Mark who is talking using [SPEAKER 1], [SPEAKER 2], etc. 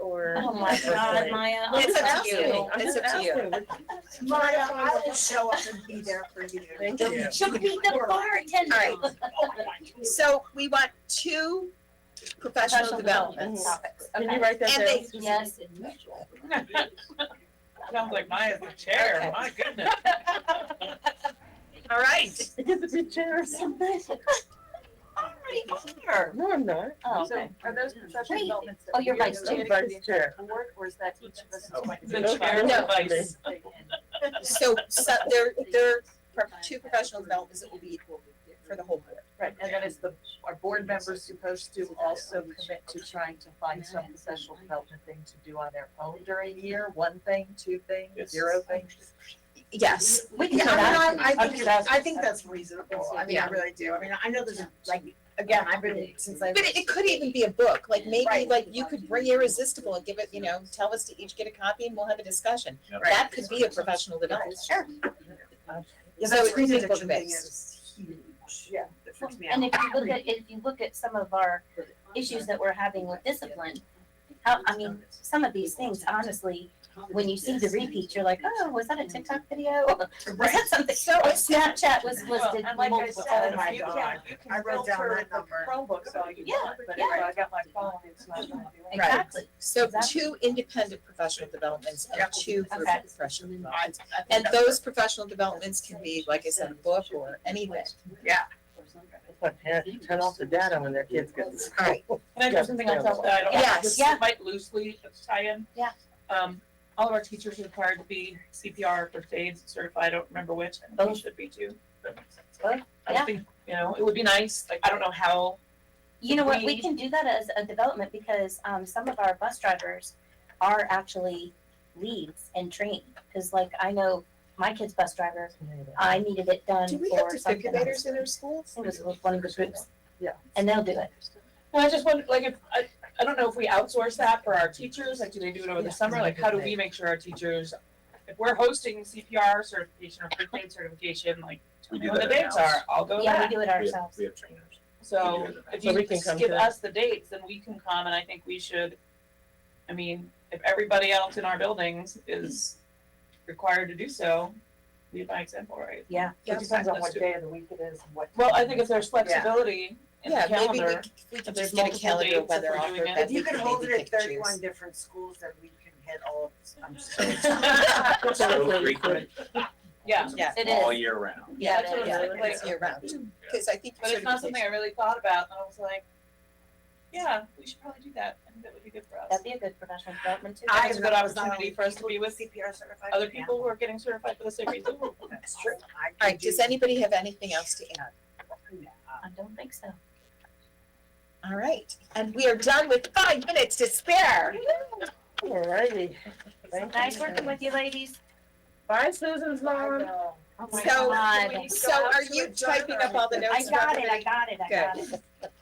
[SPEAKER 1] Oh my God, Maya, I'm
[SPEAKER 2] It's
[SPEAKER 1] so
[SPEAKER 2] up to you,
[SPEAKER 1] cute.
[SPEAKER 2] it's up to you.
[SPEAKER 3] Maya, I will show up and be there for you.
[SPEAKER 2] Thank
[SPEAKER 4] you. Yeah.
[SPEAKER 1] She'll be the bartender.
[SPEAKER 2] All So we want two professional
[SPEAKER 1] Professional
[SPEAKER 2] developments.
[SPEAKER 1] Topics.
[SPEAKER 5] Can you
[SPEAKER 1] Okay.
[SPEAKER 5] write that down?
[SPEAKER 2] And they-
[SPEAKER 1] Yes.
[SPEAKER 4] Sounds like Maya's the chair,
[SPEAKER 2] Okay.
[SPEAKER 4] my goodness.
[SPEAKER 2] All right,
[SPEAKER 5] I get to be chair or something? No, I'm not.
[SPEAKER 1] Oh,
[SPEAKER 6] So
[SPEAKER 1] okay.
[SPEAKER 6] are those professional
[SPEAKER 1] Wait.
[SPEAKER 6] developments that
[SPEAKER 1] Oh,
[SPEAKER 6] we
[SPEAKER 1] you're
[SPEAKER 6] do
[SPEAKER 1] vice
[SPEAKER 6] that
[SPEAKER 1] chair.
[SPEAKER 6] we
[SPEAKER 5] I'm vice chair.
[SPEAKER 6] Work, or is that each of
[SPEAKER 4] Oh.
[SPEAKER 6] us?
[SPEAKER 4] The chair
[SPEAKER 2] No.
[SPEAKER 4] advice.
[SPEAKER 2] so, so there, there are pro- two professional developments that will be for the whole board.
[SPEAKER 6] Right, and then is the, are board members supposed to also commit to trying to find some professional development thing to do on their own during the year? One thing, two things,
[SPEAKER 4] Yes.
[SPEAKER 6] zero things?
[SPEAKER 2] Yes,
[SPEAKER 1] We can
[SPEAKER 3] Yeah,
[SPEAKER 1] go back.
[SPEAKER 3] I mean, I, I
[SPEAKER 6] I'm
[SPEAKER 3] think,
[SPEAKER 6] just
[SPEAKER 3] I
[SPEAKER 6] asking.
[SPEAKER 3] think that's reasonable, I mean, I
[SPEAKER 2] Yeah.
[SPEAKER 3] really do, I mean, I know there's, like, again, I've been, since I.
[SPEAKER 2] but it, it could even be a book, like maybe,
[SPEAKER 3] Right.
[SPEAKER 2] like you could bring Irresistible and give it, you know, tell us to each get a copy and we'll have a discussion.
[SPEAKER 4] Yep.
[SPEAKER 2] That could be a professional development.
[SPEAKER 3] Sure. Yeah,
[SPEAKER 2] So
[SPEAKER 3] that
[SPEAKER 2] it
[SPEAKER 3] screen
[SPEAKER 2] could be
[SPEAKER 3] addiction thing
[SPEAKER 2] book-based.
[SPEAKER 3] is huge, yeah, that freaks me out.
[SPEAKER 1] And if you look at, if you look at some of our issues that we're having with discipline, how, I mean, some of these things, honestly, when you see the repeat, you're like, oh, was that a TikTok video? Was that something,
[SPEAKER 2] So it's not,
[SPEAKER 1] Snapchat was listed
[SPEAKER 6] And like I
[SPEAKER 1] multiple
[SPEAKER 6] said,
[SPEAKER 3] Oh
[SPEAKER 1] times.
[SPEAKER 3] my
[SPEAKER 6] if you
[SPEAKER 3] God.
[SPEAKER 6] can, you
[SPEAKER 3] I
[SPEAKER 6] can
[SPEAKER 3] wrote down
[SPEAKER 6] filter
[SPEAKER 3] that
[SPEAKER 6] the
[SPEAKER 3] number.
[SPEAKER 6] Chromebooks all you
[SPEAKER 1] Yeah,
[SPEAKER 6] want, but if
[SPEAKER 1] yeah.
[SPEAKER 6] I got my phone, it's not gonna do anything.
[SPEAKER 1] Exactly.
[SPEAKER 2] so two independent professional developments and
[SPEAKER 3] Yep.
[SPEAKER 2] two group
[SPEAKER 1] Okay.
[SPEAKER 2] professional
[SPEAKER 3] I-
[SPEAKER 2] developments.
[SPEAKER 3] I think
[SPEAKER 2] And
[SPEAKER 3] that's-
[SPEAKER 2] those professional developments can be, like I said, a book or anything.
[SPEAKER 3] Yeah.
[SPEAKER 5] But parents turn off the data when their kids get to school.
[SPEAKER 2] Alright.
[SPEAKER 4] Can I do something on top of that? I don't-
[SPEAKER 2] Yes.
[SPEAKER 4] this
[SPEAKER 1] Yeah.
[SPEAKER 4] Might loosely tie in.
[SPEAKER 1] Yeah.
[SPEAKER 4] Um, all of our teachers are required to be CPR or FAID certified, I don't remember which, and they
[SPEAKER 1] Both.
[SPEAKER 4] should be too. but-
[SPEAKER 1] Both,
[SPEAKER 4] I
[SPEAKER 1] yeah.
[SPEAKER 4] think, you know, it would be nice, like, I don't know how,
[SPEAKER 1] You know what, we can do that as a development because, um, some of our bus drivers are actually leads and trained. Cause like I know my kid's bus driver, I needed it done
[SPEAKER 2] Do we have
[SPEAKER 1] for something else.
[SPEAKER 2] defibrillators in our schools?
[SPEAKER 1] It was with one of the groups.
[SPEAKER 5] Yeah.
[SPEAKER 1] And they'll do it.
[SPEAKER 4] well, I just wonder, like, if, I, I don't know if we outsource that for our teachers, like, do they do it over the summer? Like, how do we make sure our teachers, if we're hosting CPR certification or FAID certification, like,
[SPEAKER 7] We
[SPEAKER 4] tell me
[SPEAKER 7] do
[SPEAKER 4] when the
[SPEAKER 7] that
[SPEAKER 4] dates
[SPEAKER 7] in-house.
[SPEAKER 4] are, I'll go to
[SPEAKER 1] Yeah, we
[SPEAKER 4] that.
[SPEAKER 1] do it
[SPEAKER 7] We have-
[SPEAKER 1] ourselves.
[SPEAKER 7] We have trainers.
[SPEAKER 4] So
[SPEAKER 7] We do that.
[SPEAKER 4] if
[SPEAKER 5] So
[SPEAKER 4] you
[SPEAKER 5] we can come
[SPEAKER 4] just give
[SPEAKER 5] to it.
[SPEAKER 4] us the dates, then we can come, and I think we should, I mean, if everybody else in our buildings is required to do so, lead by example, right?
[SPEAKER 1] Yeah.
[SPEAKER 2] Yeah.
[SPEAKER 6] It depends on what day of the week it is and what.
[SPEAKER 4] Well, I think if there's flexibility in the
[SPEAKER 2] Yeah, maybe we,
[SPEAKER 4] calendar,
[SPEAKER 2] c- we could
[SPEAKER 4] if there's
[SPEAKER 2] just get a
[SPEAKER 4] multiple
[SPEAKER 2] calendar
[SPEAKER 4] dates, if
[SPEAKER 2] weather
[SPEAKER 4] we're
[SPEAKER 2] offer
[SPEAKER 4] doing it.
[SPEAKER 2] that
[SPEAKER 3] If
[SPEAKER 2] we
[SPEAKER 3] you
[SPEAKER 2] can
[SPEAKER 3] could hold
[SPEAKER 2] maybe
[SPEAKER 3] it at
[SPEAKER 2] pick and
[SPEAKER 3] thirty-one
[SPEAKER 2] choose.
[SPEAKER 3] different schools, then we can hit all of this, I'm just.
[SPEAKER 5] That's
[SPEAKER 7] So
[SPEAKER 5] really
[SPEAKER 7] frequent,
[SPEAKER 4] yeah,
[SPEAKER 2] Yeah.
[SPEAKER 1] It
[SPEAKER 7] all
[SPEAKER 1] is.
[SPEAKER 7] year round.
[SPEAKER 1] Yeah,
[SPEAKER 4] That's
[SPEAKER 1] it is.
[SPEAKER 4] what I'm
[SPEAKER 2] Yeah,
[SPEAKER 4] saying,
[SPEAKER 2] it's
[SPEAKER 4] like- mm,
[SPEAKER 2] year round, cause I think
[SPEAKER 4] but it's not something I
[SPEAKER 2] certification-
[SPEAKER 4] really thought about, and I was like, yeah, we should probably do that, I think that would be good for us.
[SPEAKER 1] That'd be a good professional development too.
[SPEAKER 4] I-
[SPEAKER 3] I
[SPEAKER 4] it's a good opportunity for us to be with
[SPEAKER 3] CPR certified.
[SPEAKER 4] Other people who are getting certified for the same reason,
[SPEAKER 3] That's true.
[SPEAKER 2] Alright, does anybody have anything else to add?
[SPEAKER 1] I don't think so.
[SPEAKER 2] Alright, and we are done with five minutes to spare.
[SPEAKER 5] Alrighty. Thank you.
[SPEAKER 1] Nice working with you ladies.
[SPEAKER 5] Bye, Susan's mom.
[SPEAKER 1] Oh my
[SPEAKER 2] So-
[SPEAKER 1] God.
[SPEAKER 2] So are you typing up all the notes?
[SPEAKER 1] I
[SPEAKER 2] for
[SPEAKER 1] got it,
[SPEAKER 2] everybody?
[SPEAKER 1] I got it, I got it.